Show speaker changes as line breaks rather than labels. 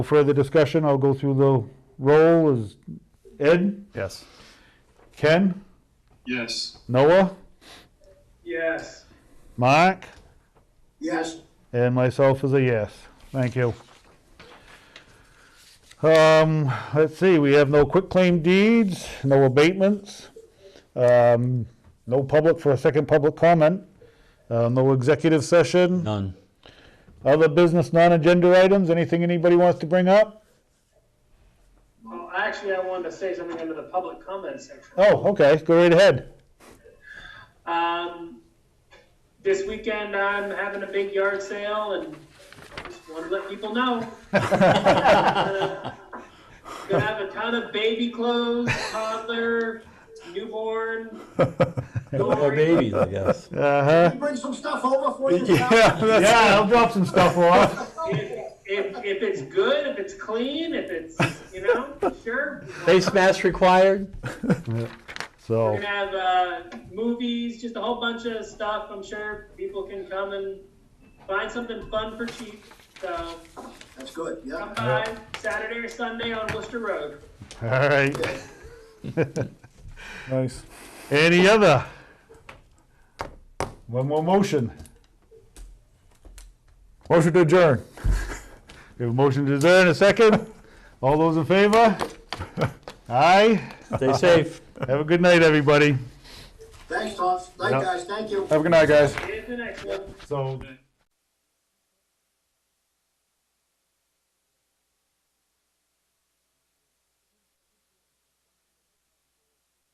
Further discussion, I'll go through the roll is Ed,
Yes.
Ken,
Yes.
Noah,
Yes.
Mark,
Yes.
and myself is a yes. Thank you. Um, let's see, we have no quitclaim deeds, no abatements, um, no public for a second public comment, uh, no executive session,
None.
other business non-agenda items, anything anybody wants to bring up?
Well, actually, I wanted to say something under the public comment section.
Oh, okay, go right ahead.
Um, this weekend, I'm having a big yard sale and just want to let people know. Gonna have a ton of baby clothes, toddler, newborn.
Or babies, I guess.
Uh-huh.
You bring some stuff over for you.
Yeah, that's-
Yeah, I'll drop some stuff off.
If, if, if it's good, if it's clean, if it's, you know, sure.
Face mask required?
So.
We're gonna have uh, movies, just a whole bunch of stuff. I'm sure people can come and find something fun for cheap. So
That's good, yeah.
come by Saturday or Sunday on Worcester Road.
All right.
Nice.
Any other? One more motion. Motion to adjourn. We have a motion to adjourn, a second. All those in favor? Aye.
Stay safe.
Have a good night, everybody.
Thanks, Tom. Night,
Yeah.
guys. Thank you.
Have a good night, guys.
Here's the next one.
So